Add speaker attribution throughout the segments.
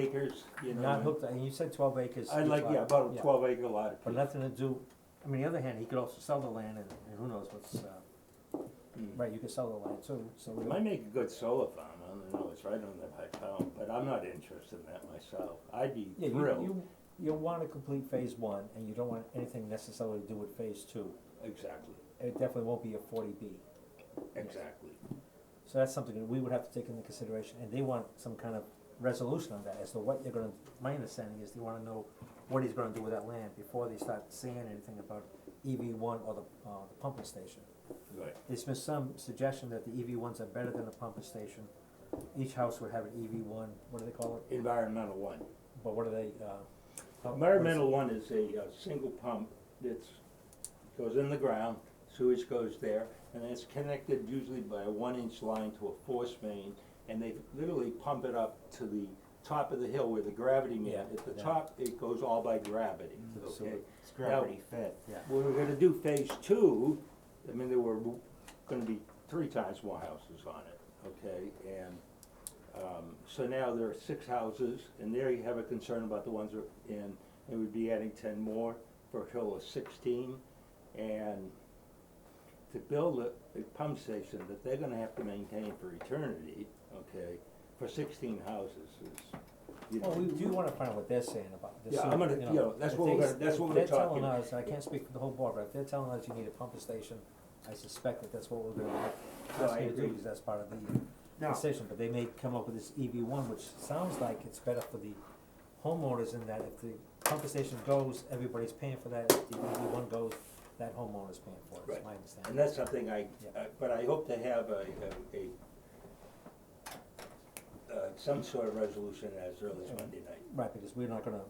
Speaker 1: acres, you know.
Speaker 2: Not hooked, and you said twelve acres.
Speaker 1: I'd
Speaker 2: each
Speaker 1: like,
Speaker 2: lot.
Speaker 1: yeah, about a twelve acre lot.
Speaker 2: But nothing to do, I mean, on the other hand, he could also sell the land and, and who knows what's, uh,
Speaker 1: Mm.
Speaker 2: right, you could sell the land too, so. we-
Speaker 1: It might make a good solar farm, I don't know, it's right on the high town, but I'm not interested in that myself, I'd be
Speaker 2: Yeah, you,
Speaker 1: thrilled,
Speaker 2: you, you wanna complete phase one and you don't want anything necessarily to do with phase two.
Speaker 1: exactly,
Speaker 2: It definitely won't be a forty B.
Speaker 1: exactly.
Speaker 2: So that's something that we would have to take into consideration, and they want some kind of resolution on that as to what they're gonna, my understanding is they wanna know what he's gonna do with that land before they start saying anything about EV one or the, uh, the pumping station.
Speaker 1: Right,
Speaker 2: There's been some suggestion that the EV ones are better than the pumping station. Each house would have an EV one, what do they call it?
Speaker 1: environmental one,
Speaker 2: But what are they, uh? how- what is it?
Speaker 1: environmental one is a, uh single pump that's, goes in the ground, sewage goes there, and it's connected usually by a one inch line to a force main, and they literally pump it up to the top of the hill where the gravity meter,
Speaker 2: Yeah,
Speaker 1: at the
Speaker 2: yeah.
Speaker 1: top, it goes all by gravity,
Speaker 2: Mm, so
Speaker 1: okay?
Speaker 2: it-
Speaker 3: It's gravity fed, yeah.
Speaker 1: When we we're gonna do phase two, I mean, there were gonna be three times more houses on it, okay? And, um, so now there are six houses, and there you have a concern about the ones that are in, and we'd be adding ten more for a total of sixteen. And to build a, a pump station that they're gonna have to maintain for eternity, okay, for sixteen houses is, you know.
Speaker 2: Well, we do wanna find out what they're saying about this.
Speaker 1: Yeah,
Speaker 2: so,
Speaker 1: I'm gonna- you know, that's
Speaker 2: if
Speaker 1: what we're
Speaker 2: they-
Speaker 1: gonna- that's
Speaker 2: if
Speaker 1: what we're
Speaker 2: They're telling
Speaker 1: talking.
Speaker 2: us, I can't speak for the whole board, but if they're telling us you need a pumping station, I suspect that that's what we're gonna,
Speaker 1: No,
Speaker 2: that's
Speaker 1: I
Speaker 2: gonna do,
Speaker 1: agree.
Speaker 2: because that's part of the
Speaker 3: Now,
Speaker 2: decision, but they may come up with this EV one, which sounds like it's better for the homeowners in that if the pumping station goes, everybody's paying for that, if the EV one goes, that homeowner's paying for it,
Speaker 1: Right.
Speaker 2: is my understanding.
Speaker 1: And that's something I,
Speaker 2: Yeah.
Speaker 1: uh, but I hope to have a, a, a, uh, some sort of resolution as early as Monday night.
Speaker 2: Right, because we're not gonna,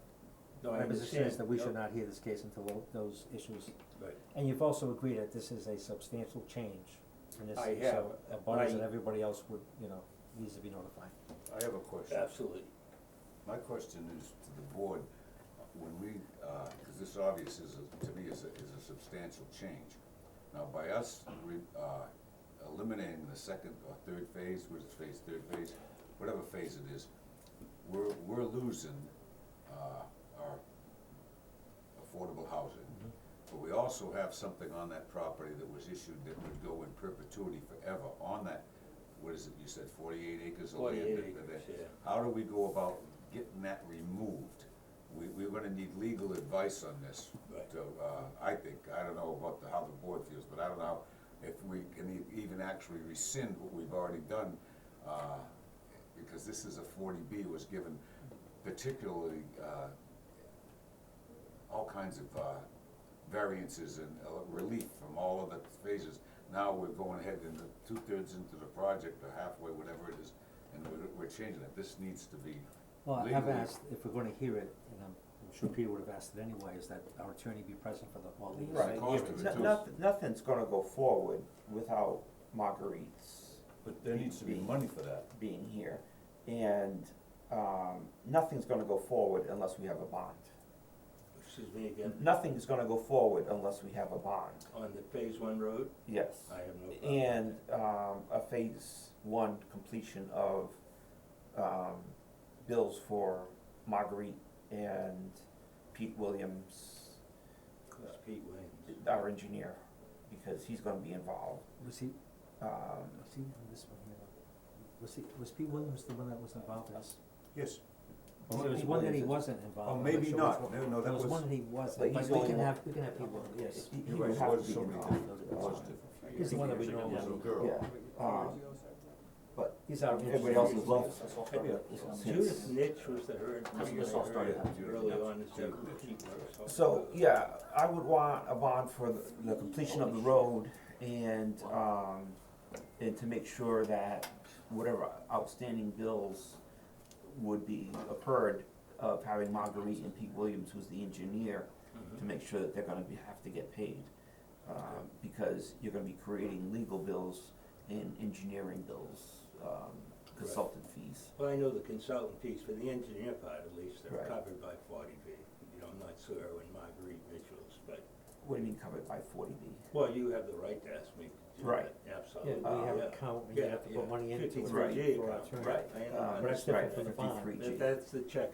Speaker 1: No, I
Speaker 2: my position
Speaker 1: understand,
Speaker 2: is that we
Speaker 1: yeah,
Speaker 2: should not hear this case until tho- those issues
Speaker 1: Right,
Speaker 2: And you've also agreed that this is a substantial change, and this,
Speaker 1: I
Speaker 2: so,
Speaker 1: have,
Speaker 2: abutters and
Speaker 1: I-
Speaker 2: everybody else would, you know, needs to be notified.
Speaker 3: I have a question.
Speaker 1: absolutely.
Speaker 3: My question is to the board, when we, uh 'cause cause this obvious is, a- to me, is a, is a substantial change. Now, by us, re, uh, eliminating the second or third phase, which is phase, third phase, whatever phase it is, we're, we're losing, uh, our affordable housing.
Speaker 1: Mm-hmm.
Speaker 3: But we also have something on that property that was issued that would go in perpetuity forever on that, what is it, you said forty-eight acres of land?
Speaker 1: 48
Speaker 3: that- that-
Speaker 1: acres,
Speaker 3: that-
Speaker 1: yeah.
Speaker 3: How do we go about getting that removed? We, we're gonna need legal advice on this.
Speaker 1: Right.
Speaker 3: So, uh, I think, I don't know about the, how the board feels, but I don't know if we can e- even actually rescind what we've already done, uh, because this is a forty B was given particularly, uh, all kinds of, uh, variances and uh, relief from all of the phases. Now we're going ahead into two-thirds into the project or halfway, whatever it is, and we're, we're changing it. This needs to be
Speaker 2: Well, I have
Speaker 3: Legally.
Speaker 2: asked, if we're gonna hear it, and I'm, I'm sure Peter would have asked it anyway, is that our attorney be present for the, all these
Speaker 3: Right.
Speaker 2: hearings.
Speaker 3: Cost of it,
Speaker 4: No-
Speaker 3: too.
Speaker 4: noth- Nothing's gonna go forward without Marguerite's
Speaker 3: But there needs to be money for that.
Speaker 4: being here. And, um, nothing's gonna go forward unless we have a bond.
Speaker 1: Excuse me again,
Speaker 4: Nothing is gonna go forward unless we have a bond,
Speaker 1: on the phase one road,
Speaker 4: yes.
Speaker 1: I have no problem.
Speaker 4: And, um, a phase one completion of, um, bills for Marguerite and Pete Williams,
Speaker 1: That's Pete Williams.
Speaker 4: our engineer, because he's gonna be involved.
Speaker 2: Was he,
Speaker 4: Um,
Speaker 2: was he on this one here? Was he, was Pete Williams the one that was involved in this?
Speaker 3: Yes.
Speaker 2: Or there was one that he wasn't involved
Speaker 3: Oh,
Speaker 2: in, I'm not
Speaker 3: maybe
Speaker 2: sure Uh, which
Speaker 3: not.
Speaker 2: one.
Speaker 3: No, no, that
Speaker 2: There was
Speaker 3: was-
Speaker 2: one that he
Speaker 4: But
Speaker 2: wasn't,
Speaker 4: he's
Speaker 2: but
Speaker 4: the
Speaker 2: we
Speaker 4: only
Speaker 2: can
Speaker 4: one-
Speaker 2: have, we can have Pete Williams, yes.
Speaker 4: He- he
Speaker 3: You're right,
Speaker 4: would
Speaker 3: it
Speaker 4: have to
Speaker 3: was
Speaker 4: be
Speaker 3: somebody
Speaker 4: involved,
Speaker 3: different. It
Speaker 4: that's
Speaker 3: was
Speaker 4: all.
Speaker 3: different.
Speaker 2: He's the one that we know.
Speaker 3: It was a
Speaker 2: of.
Speaker 3: girl.
Speaker 4: Yeah, um, but
Speaker 2: He's our.
Speaker 4: everybody else is left.
Speaker 1: Judith Nitch was the herd,
Speaker 4: I mean, this all started happening.
Speaker 1: early on, is that
Speaker 3: Judith
Speaker 1: Pete Williams.
Speaker 4: So, yeah, I would want a bond for the, the completion of the road and, um, and to make sure that whatever outstanding bills would be occurred of having Marguerite and Pete Williams, who's the engineer, to make sure that they're gonna be, have to get paid. Um, because you're gonna be creating legal bills and engineering bills, um, consultant fees.
Speaker 1: Well, I know the consultant piece, for the engineer part at least, they're
Speaker 4: Right.
Speaker 1: covered by forty B. You know, I'm not sure when Marguerite Mitchell's, but
Speaker 4: What do you mean covered by forty B?
Speaker 1: Well, you have the right to ask me. to do
Speaker 4: Right.
Speaker 1: that,
Speaker 2: Yeah,
Speaker 1: Absolutely.
Speaker 2: we have
Speaker 1: yeah.
Speaker 2: an account, and you
Speaker 1: Uh, Yeah,
Speaker 2: have to
Speaker 1: yeah.
Speaker 2: put money into it.
Speaker 1: 53G
Speaker 2: for our
Speaker 1: account,
Speaker 2: turn.
Speaker 1: Right. I
Speaker 4: Uh,
Speaker 1: understand
Speaker 2: But that's
Speaker 1: that.
Speaker 2: different from the bond.
Speaker 4: Right, fifty-three G.
Speaker 1: That- That's the check